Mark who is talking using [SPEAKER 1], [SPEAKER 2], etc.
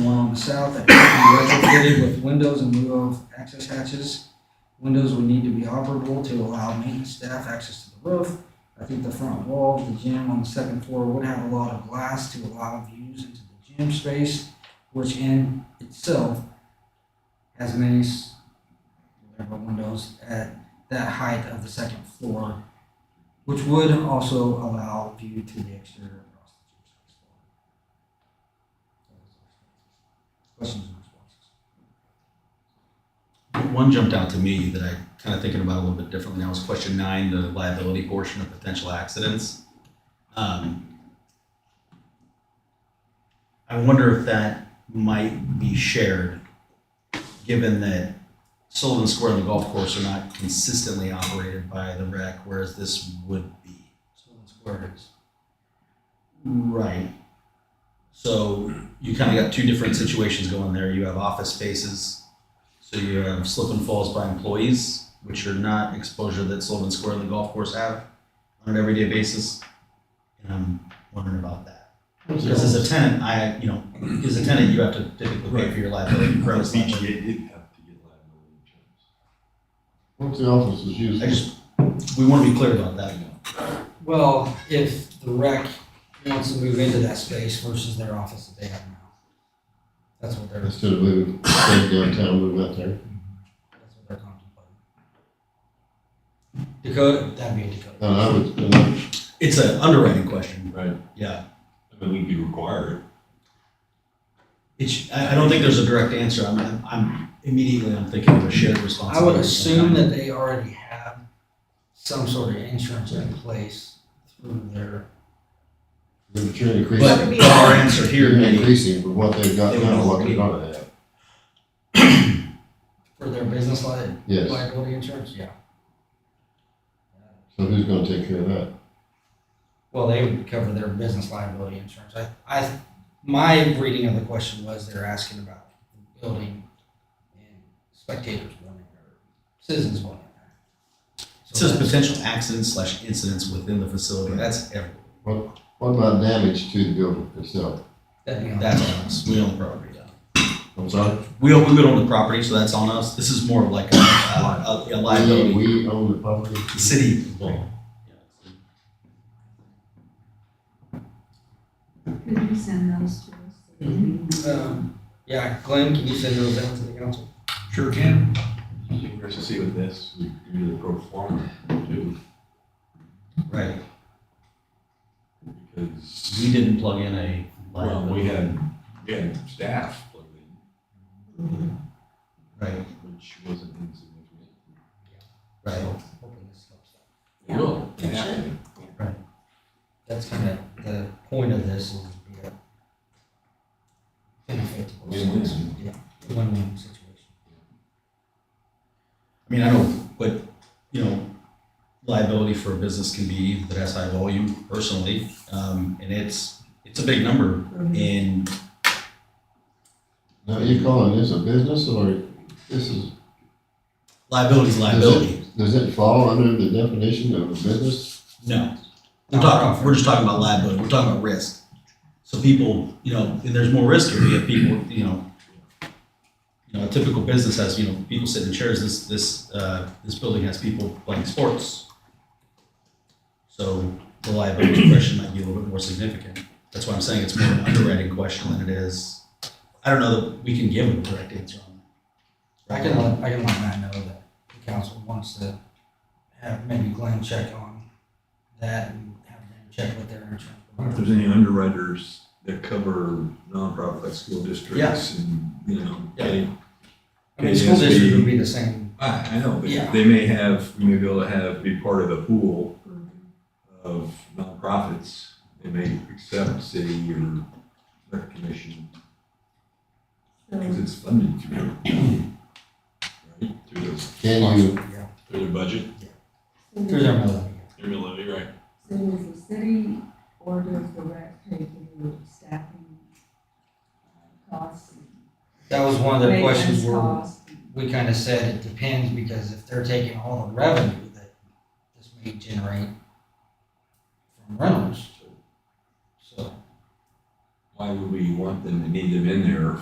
[SPEAKER 1] the south that can be retrofitted with windows in lieu of access hatches. Windows would need to be operable to allow maintenance staff access to the roof. I think the front wall of the gym on the second floor would have a lot of glass to allow views into the gym space, which in itself has many s- whatever windows at that height of the second floor, which would also allow view to the exterior across the gym space floor. Questions and responses?
[SPEAKER 2] One jumped out to me that I kind of thinking about a little bit differently. That was question nine, the liability portion of potential accidents. Um, I wonder if that might be shared, given that Sullivan Square and the golf course are not consistently operated by the rec, whereas this would be. Sullivan Square is. Right. So you kind of got two different situations going there. You have office spaces so you have slip and falls by employees, which are not exposure that Sullivan Square and the golf course have on an everyday basis. And I'm wondering about that. Because as a tenant, I, you know, as a tenant, you have to typically pay for your liability.
[SPEAKER 3] Right,
[SPEAKER 2] insurance.
[SPEAKER 3] BGA did have to get liability insurance.
[SPEAKER 4] What's the office is used?
[SPEAKER 2] I just, we want to be clear about that.
[SPEAKER 1] Well, if the rec wants to move into that space versus their office that they have now. That's what they're, that's
[SPEAKER 4] Instead of leaving, staying downtown, move out there.
[SPEAKER 1] what they're contemplating. Dakota, that'd be a Dakota.
[SPEAKER 4] And I would, and I,
[SPEAKER 2] It's an underwriting question.
[SPEAKER 3] Right.
[SPEAKER 2] Yeah.
[SPEAKER 3] I mean, we could require it.
[SPEAKER 2] It's, I, I don't think there's a direct answer. I'm, I'm- I'm immediately, I'm thinking of a shared
[SPEAKER 1] I
[SPEAKER 2] responsibility.
[SPEAKER 1] would assume that they already have some sort of insurance in place through their,
[SPEAKER 4] but you're increasing,
[SPEAKER 2] But our answer here
[SPEAKER 4] you're
[SPEAKER 2] may,
[SPEAKER 4] increasing with what they've got
[SPEAKER 2] They
[SPEAKER 4] now,
[SPEAKER 2] want
[SPEAKER 4] what
[SPEAKER 2] to-
[SPEAKER 4] they're gonna have.
[SPEAKER 1] for their business li-
[SPEAKER 4] Yes,
[SPEAKER 1] liability insurance, yeah.
[SPEAKER 4] so who's gonna take care of that?
[SPEAKER 1] Well, they would cover their business liability insurance. I, I, my reading of the question was they're asking about the building and spectators wanting, or citizens wanting.
[SPEAKER 2] it says potential accidents slash incidents within the facility. That's everywhere.
[SPEAKER 4] What about damage to the building itself?
[SPEAKER 1] That'd be on
[SPEAKER 2] That's on us. We own the property.
[SPEAKER 4] I'm sorry?
[SPEAKER 2] We own, we own the property, so that's on us. This is more of like a, a, a
[SPEAKER 4] We,
[SPEAKER 2] liability.
[SPEAKER 4] we own the property.
[SPEAKER 2] The City.
[SPEAKER 5] Could you send those to us?
[SPEAKER 1] Um, yeah, Glenn, can you send those down to the council?
[SPEAKER 3] Sure can. Interesting to see with this, we do the pro forma too,
[SPEAKER 2] Right.
[SPEAKER 3] because,
[SPEAKER 2] We didn't plug in a
[SPEAKER 3] well,
[SPEAKER 2] liability.
[SPEAKER 3] we had, we had staff plugged
[SPEAKER 2] Right,
[SPEAKER 3] in, which wasn't insignificant.
[SPEAKER 2] right.
[SPEAKER 1] Hoping this helps out.
[SPEAKER 5] Yeah.
[SPEAKER 3] Will,
[SPEAKER 5] It
[SPEAKER 3] yeah.
[SPEAKER 5] should.
[SPEAKER 1] That's kind of the point of this is to be a benefit to both sides.
[SPEAKER 3] Win-win.
[SPEAKER 1] Yeah, win-win situation.
[SPEAKER 2] I mean, I know, but, you know, liability for a business can be that has high volume personally. Um, and it's, it's a big number and
[SPEAKER 4] Now, you calling this a business or this is?
[SPEAKER 2] liability's liability.
[SPEAKER 4] Does it fall under the definition of a business?
[SPEAKER 2] No. We're talking, we're just talking about liability, we're talking about risk. So people, you know, and there's more risk here, you have people, you know, you know, a typical business has, you know, people sitting in chairs, this, this, uh, this building has people playing sports. So the liability question might be a little bit more significant. That's why I'm saying it's more an underwriting question than it is, I don't know that we can give a direct answer on that.
[SPEAKER 1] I can let, I can let Matt know that the council wants to have maybe Glenn check on that and have them check with their insurance
[SPEAKER 3] I wonder if
[SPEAKER 1] provider.
[SPEAKER 3] there's any underwriters that cover nonprofit like school districts and, you know,
[SPEAKER 2] Yeah.
[SPEAKER 3] any
[SPEAKER 1] I mean, school district would be the same,
[SPEAKER 3] I, I know, but
[SPEAKER 1] Yeah.
[SPEAKER 3] they may have, we may be able to have, be part of a pool of nonprofits. They may accept city or rec commission because
[SPEAKER 5] So,
[SPEAKER 3] it's funded through, right, through the,
[SPEAKER 4] Can you,
[SPEAKER 1] yeah,
[SPEAKER 3] through their budget,
[SPEAKER 1] through
[SPEAKER 5] so
[SPEAKER 1] their mill.
[SPEAKER 3] through the levy, right?
[SPEAKER 5] so does the city or does the rec pay for your staffing uh, costs?
[SPEAKER 1] That was one of the
[SPEAKER 5] maintenance
[SPEAKER 1] questions where
[SPEAKER 5] costs?
[SPEAKER 1] we kind of said it depends because if they're taking all the revenue that this may generate from rentals, so.
[SPEAKER 3] Why would we want them to need them in there